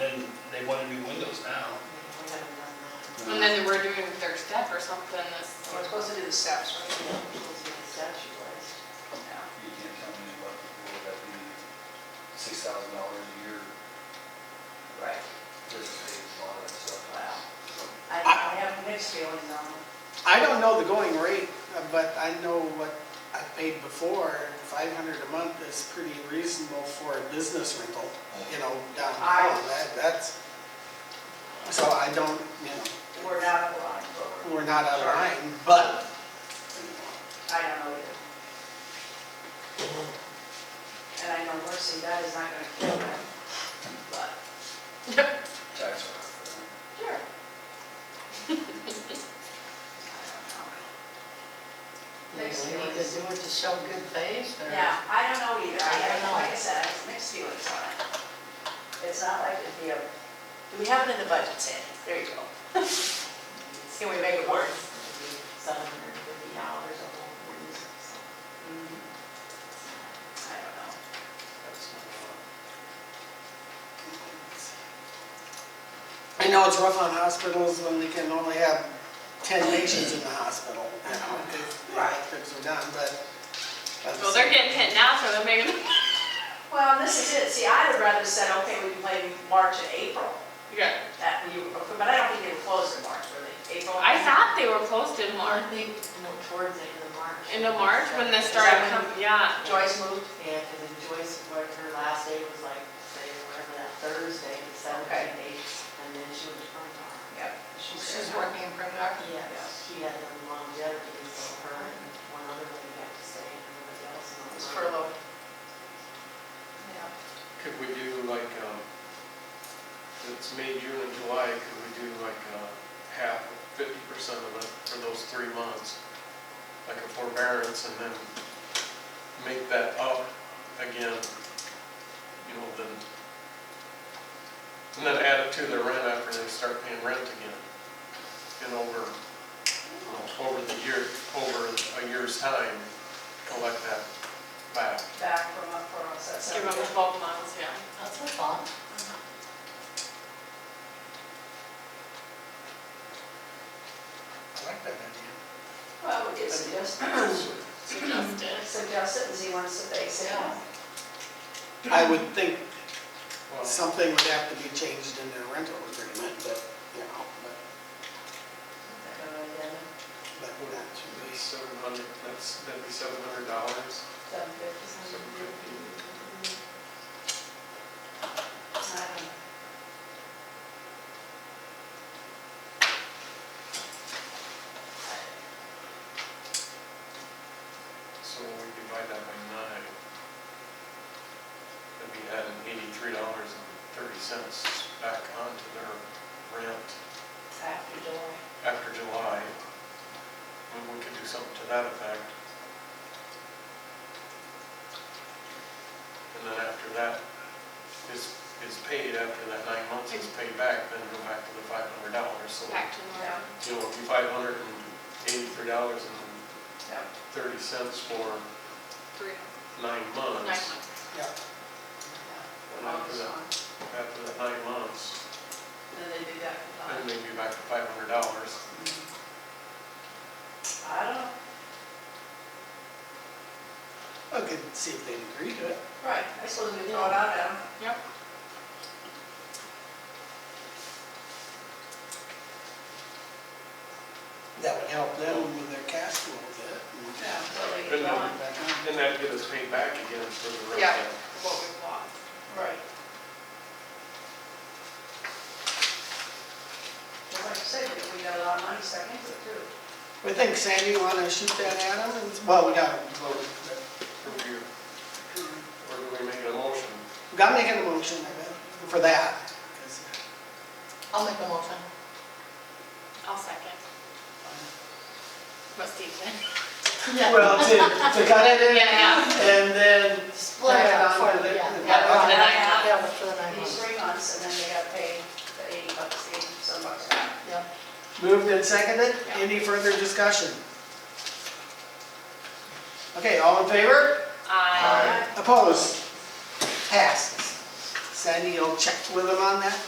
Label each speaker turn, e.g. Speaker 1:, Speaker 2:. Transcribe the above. Speaker 1: they want to do windows now.
Speaker 2: And then we're doing their step or something this,
Speaker 3: We're supposed to do the steps, right?
Speaker 2: yeah.
Speaker 4: You can't tell me what, what would that be, six thousand dollars a year,
Speaker 5: Right,
Speaker 4: just to pay a lot of that stuff.
Speaker 5: wow. I, I have mixed feelings on it.
Speaker 6: I don't know the going rate, uh, but I know what I've paid before, and five hundred a month is pretty reasonable for a business rental, you know, downtown, that, that's, so I don't, you know,
Speaker 5: We're not aligned, but we're,
Speaker 6: we're not out of line, but
Speaker 5: I don't know either. And I know Mercy, that is not gonna kill them, but.
Speaker 4: Tax rate.
Speaker 5: Sure.
Speaker 7: Next, we need to do it to show good faith, or?
Speaker 5: Yeah, I don't know either, I,
Speaker 7: I don't know.
Speaker 5: like I said, I have mixed feelings on it. It's not like it'd be a,
Speaker 3: Do we have it in the budget, Sandy? There you go. Can we make it work?
Speaker 7: Seven hundred fifty dollars a month.
Speaker 5: I don't know.
Speaker 6: I know it's rough on hospitals when they can only have ten patients in the hospital, you know, if, if things are done, but.
Speaker 2: Well, they're getting hit now, so they're making,
Speaker 5: Well, and this is it, see, I'd have rather said, okay, we can play March and April,
Speaker 2: yeah.
Speaker 5: that we, but I don't think they would close in March, were they, April?
Speaker 2: I thought they were closed in March,
Speaker 7: Aren't they, you know, towards the end of March?
Speaker 2: in the March when they
Speaker 7: Is
Speaker 2: started
Speaker 7: that when-
Speaker 2: coming, yeah.
Speaker 5: Joyce moved,
Speaker 7: Yeah, because then Joyce, what, her last day was like, say, whatever, that Thursday, the
Speaker 5: Okay.
Speaker 7: seventeenth, eighth, and then she was from town.
Speaker 5: yep.
Speaker 3: She's working in Primark.
Speaker 7: Yes, she had the longevity, so her and one other lady got to stay, and everybody else.
Speaker 5: It
Speaker 7: not.
Speaker 5: was furloughed.
Speaker 8: Could we do like, um, it's May, June, and July, could we do like uh, half, fifty percent of it for those three months? Like a forbearance and then make that up again, you know, then, and then add it to their rent after they start paying rent again. And over, you know, over the year, over a year's time, collect that back.
Speaker 5: back from up for us, that's.
Speaker 2: Give them twelve months, yeah.
Speaker 7: That's a thought.
Speaker 4: I like that idea.
Speaker 5: Well, we did suggest, suggest
Speaker 2: Suggested.
Speaker 5: it, and he wants to base it on.
Speaker 6: I would think
Speaker 8: Well,
Speaker 6: something would have to be changed in their rental agreement, but, you know, but,
Speaker 7: Uh,
Speaker 6: but we're not too big.
Speaker 8: Seven hundred, that's, that'd be seven hundred dollars,
Speaker 5: Seven fifty,
Speaker 8: seven fifty. So we divide that by nine. That'd be adding eighty-three dollars and thirty cents back onto their rent
Speaker 5: after July.
Speaker 8: after July. And we could do something to that effect. And then after that is, is paid, after that nine months is paid back, then go back to the five hundred dollars, so.
Speaker 2: Back to normal.
Speaker 8: you know, it'd be five hundred and eighty-three dollars and
Speaker 5: Yep.
Speaker 8: thirty cents for
Speaker 2: Three,
Speaker 8: nine
Speaker 2: nine
Speaker 8: months.
Speaker 2: months.
Speaker 8: And after that, after that nine months,
Speaker 5: Then they do that for
Speaker 2: Uh-huh.
Speaker 8: then maybe back to five hundred dollars.
Speaker 5: I don't know,
Speaker 6: I could see if they'd agree to it.
Speaker 5: right, I suppose we throw it out at them.
Speaker 2: Yep.
Speaker 6: That would help them with their cash flow a bit.
Speaker 5: Yeah, so they
Speaker 8: Good
Speaker 5: get going.
Speaker 8: night. Then that'd get us paid back again for the
Speaker 2: Yeah.
Speaker 8: rent.
Speaker 2: What we want.
Speaker 5: Right. Well, like I said, we got a lot of money stuck into it too.
Speaker 6: We think Sandy, you wanna shoot that at them? And- Well, we gotta vote. but-
Speaker 8: Or do you- Or do we make a motion?
Speaker 6: We gotta make an motion I bet, for that. 'cause-
Speaker 7: I'll make a motion.
Speaker 2: I'll second. But Steve then.
Speaker 6: Well, to, to cut it in
Speaker 2: Yeah, yeah.
Speaker 6: and then,
Speaker 7: Split it up for the, yeah.
Speaker 6: Yeah,
Speaker 2: for the nine months.
Speaker 7: Yeah, but for the nine
Speaker 5: These
Speaker 7: months.
Speaker 5: three months, and then they got paid the eighty bucks, eighty some bucks back.
Speaker 7: Yeah.
Speaker 6: moved and seconded.
Speaker 2: Yeah.
Speaker 6: Any further discussion? Okay, all in favor?
Speaker 2: Aye.
Speaker 6: Opposed? Passes. Sandy, you'll check with them on that?